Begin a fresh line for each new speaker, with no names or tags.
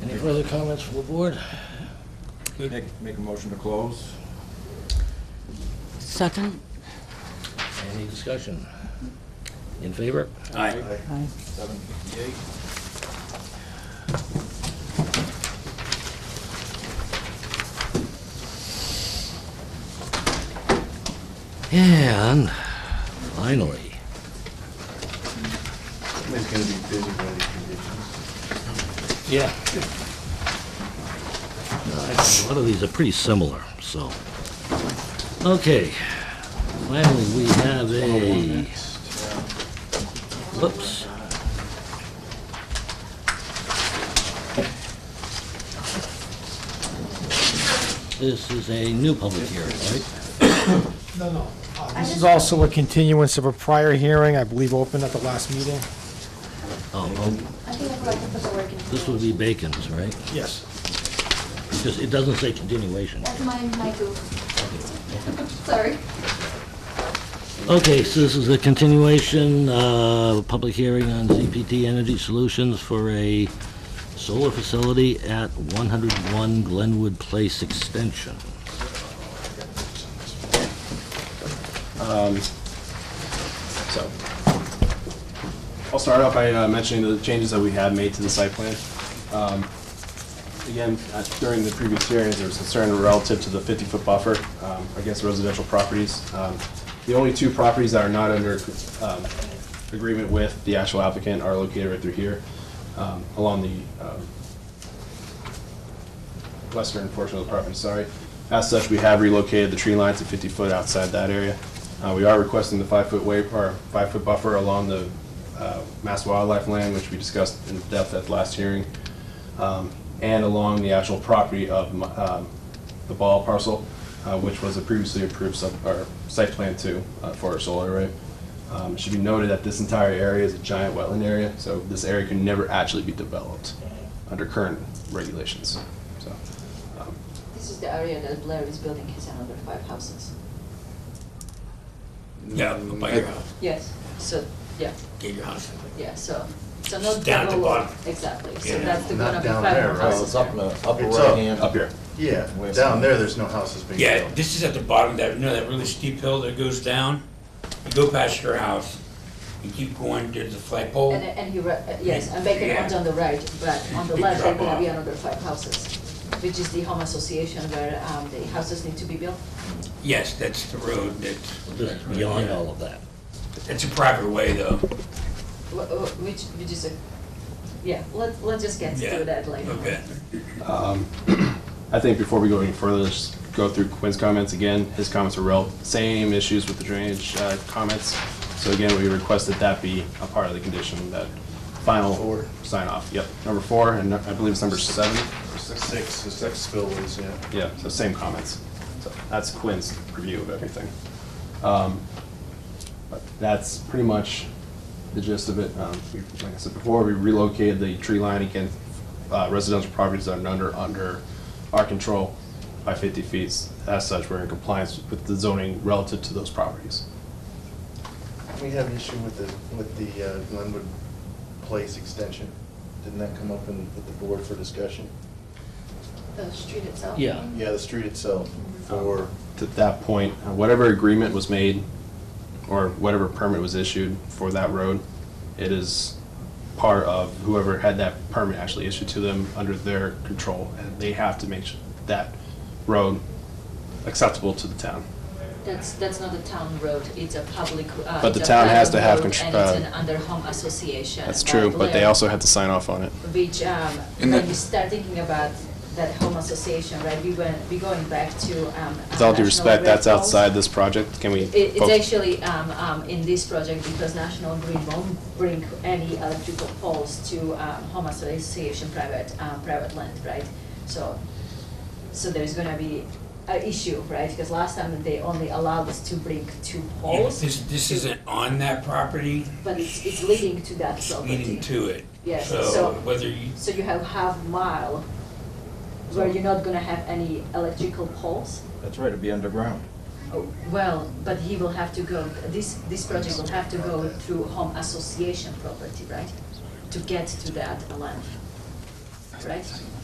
further comments from the board?
Make, make a motion to close.
Second?
Any discussion? In favor?
Aye.
Aye.
Seven fifty-eight.
And finally,
It's gonna be busy by these conditions.
yeah. A lot of these are pretty similar, so. Okay, finally, we have a, whoops. This is a new public hearing, right?
No, no. Uh, This is also a continuance of a prior hearing, I believe, opened at the last meeting.
Oh, oh,
I think I forgot to put the word continue.
this would be Bacon's, right?
Yes.
Because it doesn't say continuation.
That's my, my goof. Sorry.
Okay, so this is a continuation uh, of a public hearing on ZPT Energy Solutions for a solar facility at 101 Glenwood Place Extension.
So, I'll start out by uh, mentioning the changes that we had made to the site plan. Um, Again, uh, during the previous hearings, there was concern relative to the 50-foot buffer um, against residential properties. Um, The only two properties that are not under um, agreement with the actual applicant are located right through here, um, along the um, western portion of the property, sorry. As such, we have relocated the tree line to 50 foot outside that area. Uh, We are requesting the five-foot waiver, or five-foot buffer along the uh, Mass Wildlife Land, which we discussed in depth at the last hearing, um, and along the actual property of my- um, the Ball parcel, uh, which was a previously approved sub, or site plan too, uh, for our solar array. Um, It should be noted that this entire area is a giant wetland area, so this area can never actually be developed under current regulations, so.
This is the area that Blair is building his another five houses.
Yeah, by your house,
Yes, so, yeah,
get your house.
yeah, so, so not.
Down at the
double-
bottom.
Exactly, so
Yeah.
that's the
Not
gonna be
down
five
there,
more
right?
Well,
houses
it's up in the upper
It's
right
up.
hand.
Up here.
Yeah, down there, there's no houses being
Yeah,
built.
this is at the bottom, that, you know, that really steep hill that goes down? You go past your house, you keep going, there's a flagpole.
And, and he, re- uh, yes, and Bacon
Yeah.
owns on the right, but on the
Big
left, there
drop
gonna be
off.
another five houses, which is the home association where, um, the houses need to be built.
Yes, that's the road, that's.
This is beyond all of that.
It's a private way, though.
Wh- wh- Which, which is a, yeah, let, let's just get
Yeah.
to that later.
Okay.
I think before we go any further, just go through Quinn's comments again. His comments were real, same issues with the drainage uh, comments. So again, we request that that be a part of the condition, that final sign off. Yep, number four, and I believe it's number seven or six.
Six, the six spillways, yeah.
Yeah, so same comments. So That's Quinn's review of everything. Um, but That's pretty much the gist of it. Um, we- Like I said before, we relocated the tree line again, uh, residential properties that are under, under our control by 50 feet. As such, we're in compliance with the zoning relative to those properties.
We have an issue with the, with the uh, Glenwood Place extension. Didn't that come up in, with the board for discussion?
The street itself.
Yeah.
Yeah, the street itself for,
To that point, uh, whatever agreement was made or whatever permit was issued for that road, it is part of whoever had that permit actually issued to them under their control, and they have to make su- that road acceptable to the town.
That's, that's not a town road, it's a public, uh.
But
it's
the
a
town has to
private
have
road
contr-
And it's
uh,
an under home association.
That's true, but they
Blair,
also have to sign off on it.
Which, um, when you start thinking about that home association, right, we went, we going back to, um.
With all due
National
respect,
Grid
that's
Falls.
outside this project. Can we?
It, it's
focus-
actually, um, um, in this project because National Grid won't bring any electrical poles to, um, home association private, um, private land, right? So, so there's gonna be an issue, right? Because last time they only allowed us to bring two
Yeah,
poles.
This, this isn't on that property,
But it's, it's leading to that property.
leading to it.
Yes,
So
so-
whether you,
So you have half mile where you're not gonna have any electrical poles?
That's right, it'd be underground.
Well, but he will have to go, this, this project will have to go through home association property, right? To get to that land, right?